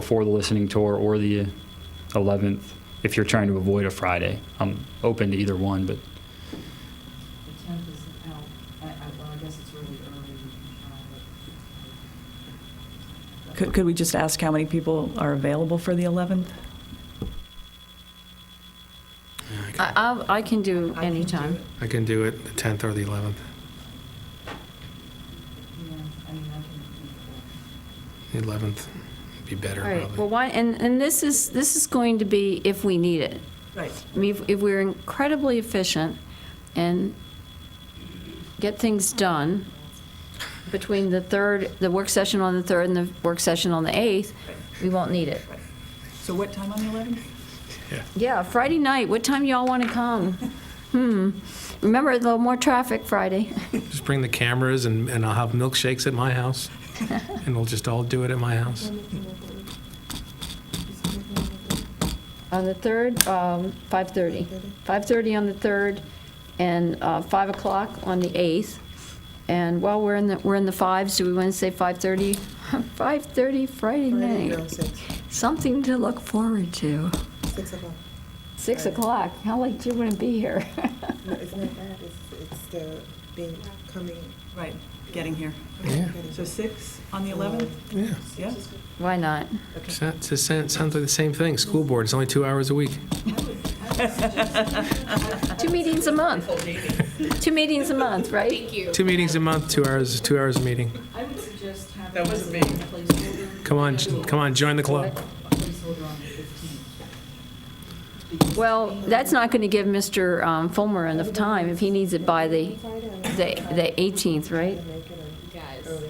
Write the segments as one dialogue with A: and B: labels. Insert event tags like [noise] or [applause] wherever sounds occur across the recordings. A: before the listening tour or the 11th, if you're trying to avoid a Friday. I'm open to either one, but
B: The tenth is out, I, I, well, I guess it's really early, uh, but.
C: Could, could we just ask how many people are available for the 11th?
D: I, I'll- I can do
B: I can do
D: anytime.
B: it.
E: I can do it the 10th or the 11th.
B: Yeah, I mean, I can do
E: The 11th would be better,
D: All right, well,
E: probably.
D: why, and, and this is, this is going to be if we need it.
C: Right.
D: I mean, if- if we're incredibly efficient and get things done between the third, the work session on the third and the work session on the eighth, we won't need it.
C: So what time on the 11th?
D: Yeah, Friday night, what time y'all want to come? Hmm, remember, a little more traffic Friday. [laughs]
E: Just bring the cameras and, and I'll have milkshakes at my house. And we'll just all do it at my house.
D: On the third, um, 5:30. 5:30 on the third, and uh, 5 o'clock on the 8th. And while we're in the, we're in the fives, do we want to say [laughs] 5:30? 5:30 Friday night. Something to look forward to.
F: Six o'clock.
D: 6
F: Right.
D: o'clock, how late you want to be here? [laughs]
F: No, it's not that, it's, it's the being, coming.
C: Right, getting here.
E: Yeah.
C: So 6 on the 11th?
E: Yeah.
C: Yeah.
D: Why not?
E: It's not- it's the same- it Sounds like the same thing. School board, it's only two hours a week.
D: Two meetings a month. Two meetings a month, right?
E: Two meetings a month, two hours, two hours a meeting.
B: it. I would suggest having. That wasn't me. Placeholder,
E: Come on, j- come on, join the club.
B: placeholder on the fifteenth.
D: Well, that's not going to give Mr. um, Fulmer enough time if he needs it by the, the the 18th, right?
F: Guys.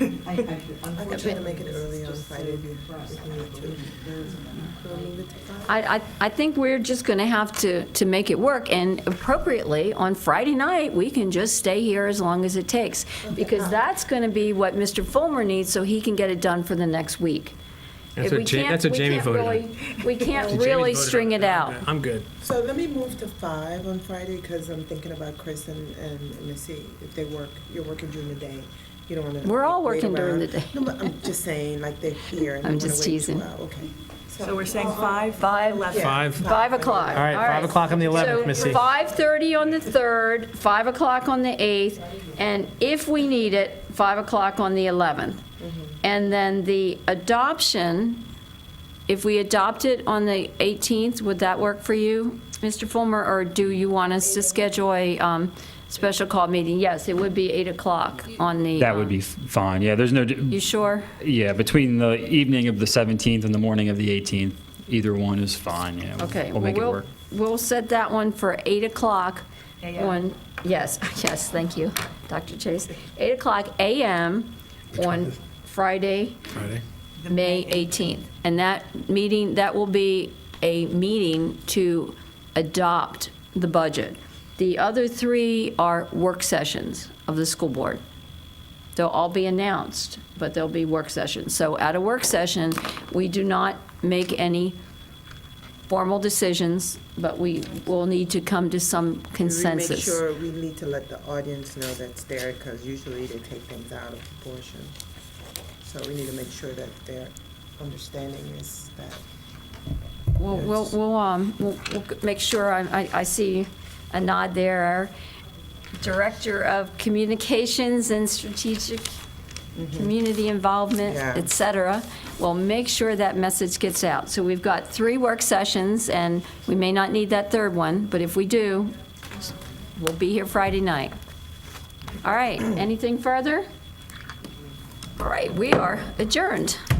F: I'm
B: I, I,
F: gonna
B: unfortunately,
F: make it
B: this
F: early
B: is
F: on
B: just so
F: Friday if you-
B: depressed.
F: if you need to.
B: There isn't enough.
F: We'll move it to five.
D: I, I, I think we're just going to have to, to make it work, and appropriately, on Friday night, we can just stay here as long as it takes, because that's going to be what Mr. Fulmer needs, so he can get it done for the next week.
E: That's
D: If
E: what
D: we
E: Ja-
D: can't-
E: that's what
D: we
E: Jamie
D: can't
E: voted on.
D: really- We
E: [laughs]
D: can't
E: Jamie's
D: really
E: voted on
D: string it out.
E: I'm good.
F: So let me move to five on Friday, because I'm thinking about Chris and, and Missy, if they work, you're working during the day. You don't wanna.
D: We're all
F: wait
D: working during
F: around.
D: the day.
F: No, but I'm just saying, like, they're here. and
D: I'm
F: you wanna
D: just
F: wait
D: teasing.
F: two hours. Okay. Oh,
C: So we're saying 5? 5.
F: Yeah,
C: 11.
E: Five.
D: Five o'clock.
E: All right, five o'clock on the 11th, Missy.
D: So 5:30 on the 3rd, 5 o'clock on the 8th, and if we need it, 5 o'clock on the 11th. And then the adoption, if we adopt it on the 18th, would that work for you, Mr. Fulmer? Or do you want us to schedule a um, special call meeting? Yes, it would be 8 o'clock on the.
A: that would be
D: um,
A: f- fine. Yeah, there's no,
D: You
A: d-
D: sure?
A: yeah, between the evening of the 17th and the morning of the 18th, either one is fine, yeah. we'll-
D: Okay.
A: We'll make it
D: well,
A: work.
D: We'll set that one for 8 o'clock
B: AM.
D: on, yes, [laughs] yes, thank you, Dr. Chase. 8 o'clock AM on Friday,
E: Friday.
D: May 18th. And that meeting, that will be a meeting to adopt the budget. The other three are work sessions of the school board. They'll all be announced, but they'll be work sessions. So at a work session, we do not make any formal decisions, but we will need to come to some
F: We make
D: consensus.
F: sure we need to let the audience know that's there, because usually they take things out of proportion. So we need to make sure that their understanding is that.
D: We'll, we'll, we'll, um, we'll we'll make sure, I, I- I see a nod there. Our Director of Communications and Strategic Community Involvement,
F: Yeah.
D: et cetera, will make sure that message gets out. So we've got three work sessions, and we may not need that third one, but if we do, we'll be here Friday night. [clears throat] All right, anything further? All right, we are adjourned.